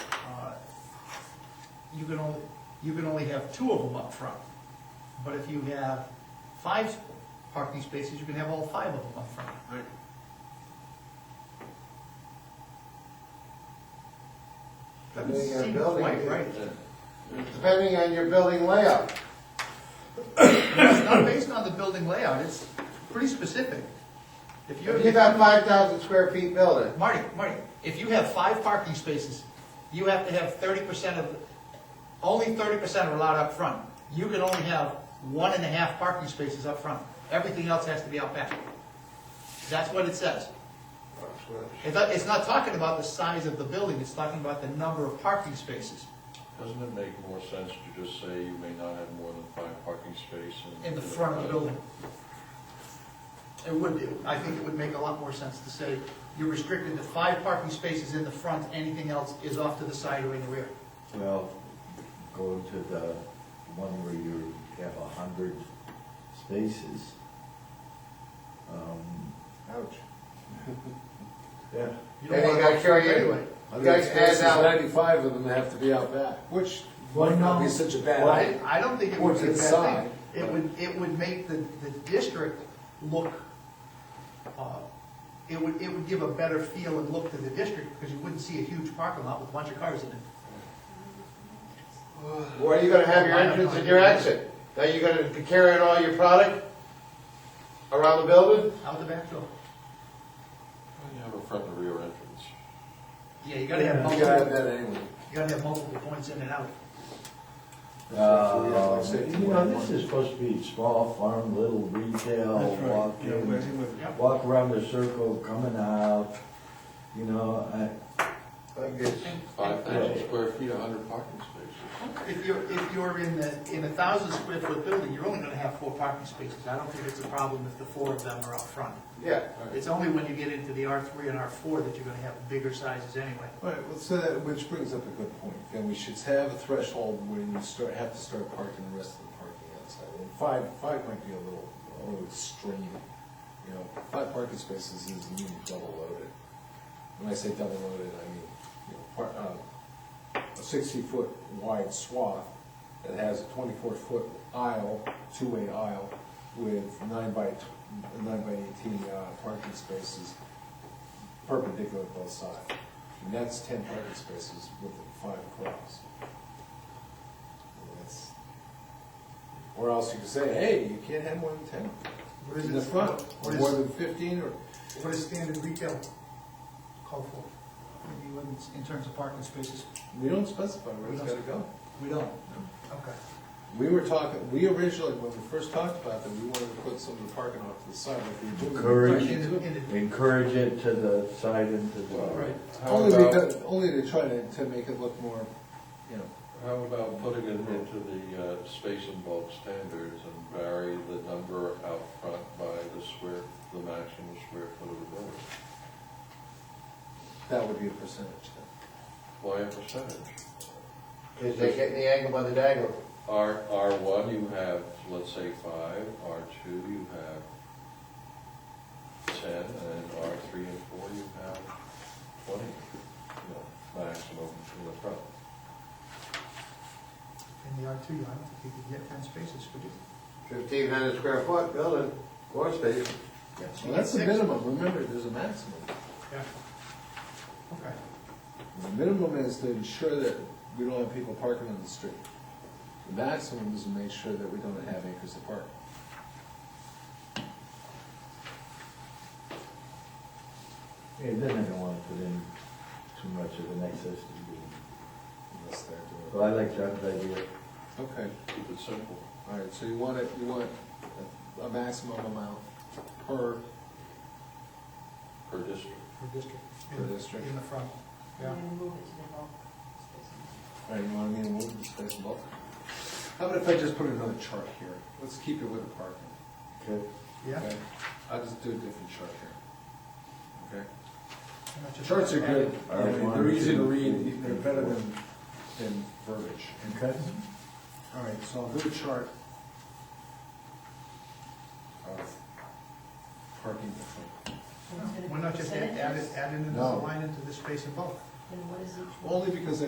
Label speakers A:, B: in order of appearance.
A: Uh, you can only, you can only have two of them up front. But if you have five parking spaces, you can have all five of them up front.
B: Right.
A: That
C: Depending on
A: doesn't seem
C: building,
A: quite
C: it-
A: right.
C: Depending on your building layout.
A: It's not based on the building layout, it's pretty specific. If you,
C: If you got five thousand square feet building,
A: Marty, Marty, if you have five parking spaces, you have to have thirty percent of, only thirty percent are allowed up front. You can only have one and a half parking spaces up front. Everything else has to be out back. That's what it says. It's not, it's not talking about the size of the building, it's talking about the number of parking spaces.
D: Doesn't it make more sense to just say you may not have more than five parking spaces?
A: in the front of the building. It would, it- I think it would make a lot more sense to say, you're restricted to five parking spaces in the front, anything else is off to the side or in the rear.
E: Well, go to the one where you have a hundred spaces. Um,
C: ouch.
E: Yeah.
A: You don't
C: Then you
A: wanna
C: gotta
A: go
C: carry
A: through
C: anyway. You
B: Hundred
C: gotta
B: spaces,
C: add out,
B: ninety-five of them have to be out back. Which
A: might not be
B: such a
A: Well, I I don't think it would be a
B: Towards the
A: bad
B: side.
A: thing. It would, it would make the, the district look, uh, it would, it would give a better feel and look to the district, because you wouldn't see a huge parking lot with a bunch of cars in it.
C: where are you gonna have your entrance and your exit? Now you gonna be carrying all your product around the building?
A: Out the back door.
D: You have a front and rear entrance.
A: Yeah, you gotta have
B: You gotta have
A: multiple,
B: that anyway.
A: you gotta have multiple points in and out.
E: Uh, You know, this is supposed to be small farm, little retail, walk in, walk around the circle, coming out, you know, I,
C: Like this.
D: Five thousand square feet, a hundred parking spaces.
A: If you're, if you're in the, in a thousand square foot building, you're only gonna have four parking spaces. I don't think it's a problem if the four of them are out front.
C: Yeah.
A: It's only when you get into the R three and R four that you're gonna have bigger sizes anyway.
B: Right, well, so that, which brings up a good point, then we should have a threshold when you start, have to start parking the rest of the parking outside. And five, five might be a little, a little extreme, you know, five parking spaces is mean double loaded. When I say double loaded, I mean, you know, par, uh, a sixty-foot wide swath that has a twenty-four-foot aisle, two-way aisle, with nine by, tw- nine by eighteen, uh, parking spaces perpendicular to both sides. And that's ten parking spaces with the five across. And that's- Or else you could say, hey, you can't have more than ten.
A: What is
B: In
A: it?
B: the front, or
A: What
B: more
A: is,
B: than fifteen, or,
A: what is standard retail call for? Maybe when it's- in terms of parking spaces?
B: we don't specify where it's gotta go.
A: We don't. Okay.
B: We were talking, we originally, when we first talked about that, we wanted to put some of the parking off to the side like we do. in the
E: Encourage.
A: In
B: parking
A: the-
B: too.
A: in the-
E: encourage it to the side and to the.
D: Right. How
B: Only
D: about,
B: because, only to try to, to make it look more, you know,
D: how about putting it into the uh, space and bulk standards and vary the number out front by the square, the maximum square foot of the building?
B: that would be a percentage.
D: Why a percentage?
C: Cause they're getting the angle by the dagger.
D: R, R one, you have, let's say, five, R two, you have ten, and R three and four, you have twenty, you know, maximum in the front.
A: In the R two, I don't think you could get ten spaces, could you?
C: Fifteen hundred square foot building, floor space.
B: Well, that's the minimum, remember, there's a maximum.
A: Yeah. Okay.
B: The minimum is to ensure that we don't have people parking on the street. The maximum is to make sure that we don't have acres of park.
E: Yeah, then I don't wanna put in too much of an excess to be,
B: unless they're
E: but I like John's idea.
B: doing. Okay,
D: Keep it simple.
B: all right, so you want it, you want a- a maximum amount per,
D: Per district.
A: For district.
B: Per district.
A: In the front, yeah.
F: And move it to the bulk space.
B: all right, you want me to move the space above? How about if I just put another chart here? Let's keep it with the parking.
E: Okay.
A: Yeah.
B: okay? I'll just do a different chart here. Okay?
A: I'm not just-
B: Charts are good,
E: All right, one,
B: they're easy to
E: two,
B: read,
E: three,
B: they're better
E: four.
B: than, than verbiage.
E: Okay.
B: All right, so I'll do a chart of parking.
F: And it's gonna
A: Why
F: be
A: not just add,
F: percentages.
A: add it, add in another
B: No.
A: line into the space above?
F: Then what is it?
B: Only because